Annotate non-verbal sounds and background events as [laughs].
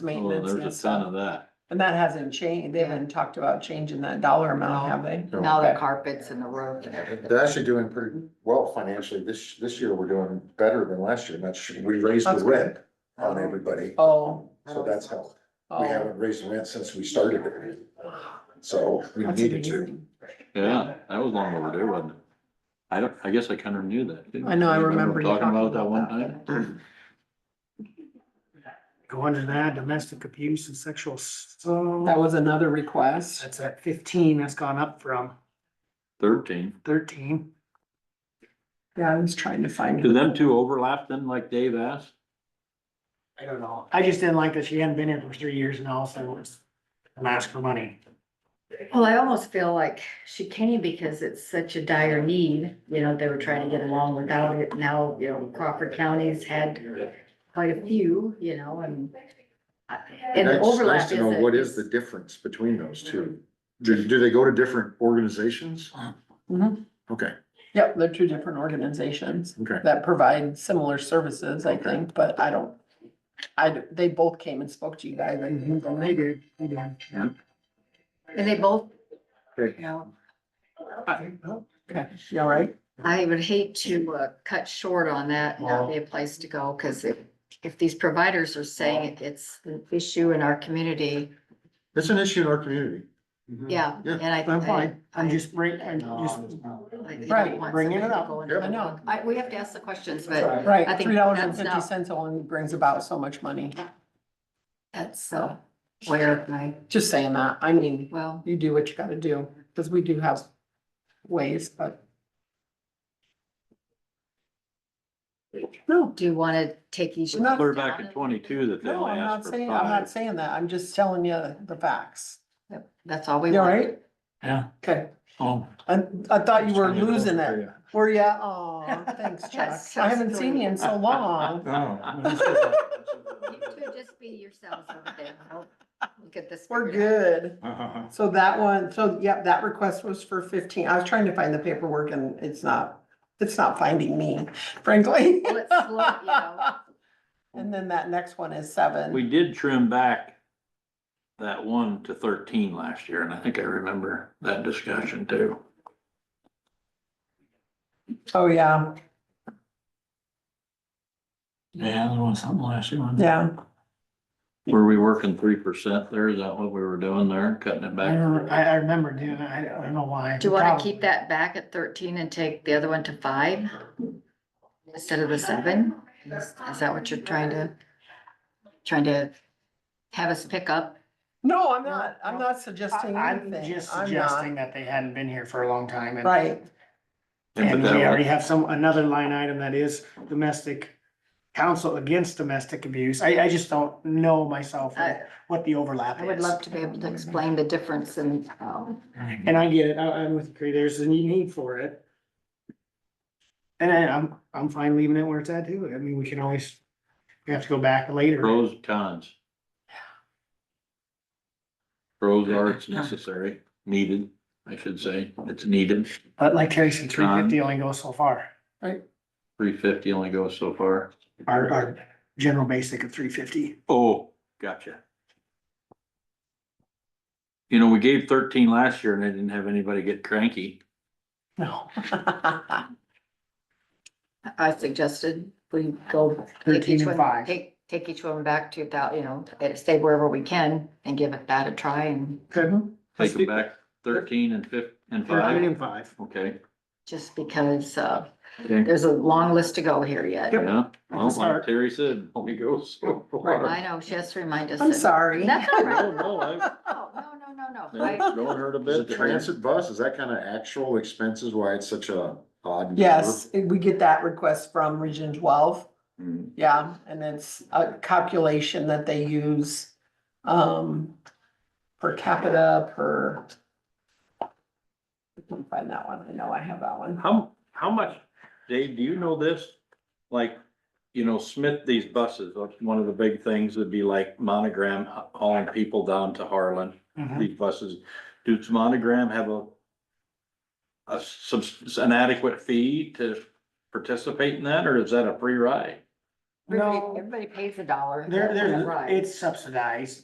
Well, maintenance Oh, there's and a ton stuff. of that. And that hasn't changed, they haven't talked about changing that dollar amount, have they? Now the carpets and the roof and everything. They're actually doing pretty well financially. This, this year, we're doing better than last year. That's, we raised the That's Uh-huh. rent on everybody, Oh, so that's helped. We oh. haven't raised the rent since we started it. So we that's needed to. amazing. Yeah, that was long overdue, wasn't it? I don't, I guess I kind of knew that. didn't I know, I remember you Talking about it talking that one about time. [clears throat] Go under that, domestic abuse and sexual, That so was another request, that's at fifteen, that's gone up from Thirteen. thirteen. yeah, I was trying to find. Do them two overlap then, like Dave asked? I don't know. I just didn't like that she hadn't been here for three years now, so it's, I'm asking for money. Well, I almost feel like she came because it's such a dire need, you know, they were trying to get along without it. Now, you know, Crawford County's had quite a few, you know, and. And the That's nice overlap to is. know a- What is the difference between those two? Mm-hmm. Do, do they go to different organizations? Mhm. Okay, Yep, they're two different organizations okay. that provide similar services, I Okay. think, but I don't. I, d- they both came and spoke to you guys, I think, and they- did, they did. And they both, you Okay. know, you all right? I would hate to uh, cut short on that, and not be a place to go, because if, if these providers are saying it- it's an issue in our community, It's an issue in our community. yeah, Mm-hmm. Yeah, and I. I'm fine. I- I'm just bring, I'm just, I don't Right, want bringing it somebody to up. go and- Yep. I know. I, we have to ask the questions, but I Right, think three dollars and that's fifty not- cents only brings about so much money, that's, uh, where my, just saying that, I mean. well, you do what you gotta do, because we do have ways, but. No, do you want to take each? No. Clear back in twenty-two that they no, only I'm not asked for saying, I'm not five. saying that, I'm just telling you the facts. Yep, That's all we You all want. right? Yeah. Okay, oh, I, I thought you were losing it. Were ya? Oh, [laughs] thanks, That's Chuck. so I haven't seen silly. you in so long. [laughs] Oh. [laughs] You two just be yourselves over there. I'll Look at this. We're figured out. good. Oh, So that one, so yep, that request was for fifteen. I was trying to find the paperwork and it's not, it's not finding me, frankly. Well, it's slow, you know. [laughs] And then that next one is seven. We did trim back that one to thirteen last year, and I think I remember that discussion too. Oh, yeah, yeah, there was something last year. yeah. Were we working three percent there? Is that what we were doing there, cutting it I back? remember, I, I remember, dude, I don't I don't know why. Do you want to keep that back at thirteen and take the other one to five? Instead of the seven? Is is that what you're trying to, trying to have us pick up? No, I'm No, not, I'm no. not suggesting I- I'm anything. just I'm suggesting not, that they hadn't been here for a long time and. right, Yeah, but And we that already was- have some, another line item that is domestic, counsel against domestic abuse. I, I just don't know myself I, what the overlap is. I would love to be able to explain the difference in, um, And I get it, I, I'm with you, there's a need for it. And I- I'm, I'm fine leaving it where it's at too, I mean, we can always, we have to go back later. Pros, cons. Pros are it's necessary, needed, I should say. It's needed. But like Terry said, three fifty only goes so far, Three fifty only goes so far. our, our general basic of three fifty. Oh, gotcha. You know, we gave thirteen last year and I didn't have anybody get cranky. [laughs] No. I suggested we go. take 13 each and one- five. Take, take each one back to thou, you know, eh, stay wherever we can and give it that a try and Take them back thirteen and fif- and Thirteen five, and five. okay. just because, uh, okay. there's a long list to go here yet. Yeah, well, like Start. Terry said, only goes so far. I know, she has to remind us. I'm that- sorry. That's all right. [laughs] No, no, I- Oh, no, no, no, no. no, I- Don't hurt a Is bit. it transit bus? Is that kind of actual expenses? Why it's such a odd? number? Yes, we get that request from Region twelve, Hmm. yeah, and it's a calculation that they use. Um, per capita, per. I can find that one, I know I have that one. How, how much, Dave, do you know this? Like, you know, Smith, these buses, like, one of the big things would be like Monogram uh, hauling people down to Harlan, Mhm. these buses. Does Monogram have a a subs, an adequate fee to participate in that, or is that a free ride? No. Everybody pays a dollar. There, Right. there, it's subsidized.